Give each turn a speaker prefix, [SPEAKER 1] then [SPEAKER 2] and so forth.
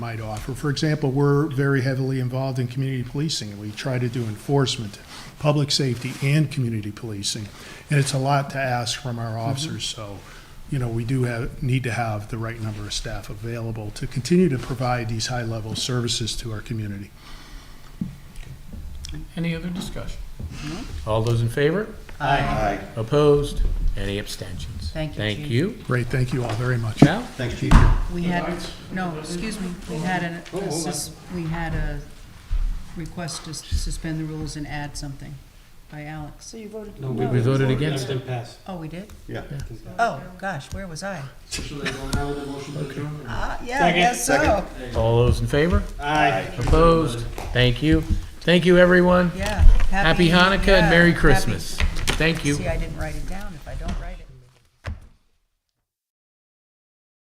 [SPEAKER 1] might offer. For example, we're very heavily involved in community policing, and we try to do enforcement, public safety, and community policing. And it's a lot to ask from our officers, so, you know, we do have, need to have the right number of staff available to continue to provide these high-level services to our community.
[SPEAKER 2] Any other discussion?
[SPEAKER 3] Mm-hmm.
[SPEAKER 2] All those in favor?
[SPEAKER 4] Aye.
[SPEAKER 2] Opposed? Any abstentions?
[SPEAKER 3] Thank you,
[SPEAKER 2] Thank
[SPEAKER 3] Chief.
[SPEAKER 2] you.
[SPEAKER 1] Great, thank you all very much.
[SPEAKER 2] Now,
[SPEAKER 4] Thanks, Chief.
[SPEAKER 3] We had, no, excuse me,
[SPEAKER 5] Oh,
[SPEAKER 3] we had an- a, sus- we had a request to suspend the rules and add something by Alex.
[SPEAKER 6] So you voted
[SPEAKER 5] No,
[SPEAKER 6] no.
[SPEAKER 2] we voted against it.
[SPEAKER 5] Didn't pass.
[SPEAKER 3] Oh, we did?
[SPEAKER 4] Yeah.
[SPEAKER 3] Oh, gosh, where was I? Ah, yeah, I
[SPEAKER 5] Second.
[SPEAKER 3] guess so.
[SPEAKER 2] All those in favor?
[SPEAKER 5] Aye.
[SPEAKER 2] Opposed? Thank you. Thank you, everyone.
[SPEAKER 3] Yeah.
[SPEAKER 2] Happy Hanukkah and Merry
[SPEAKER 3] yeah, happy-
[SPEAKER 2] Christmas. Thank you.
[SPEAKER 3] See, I didn't write it down.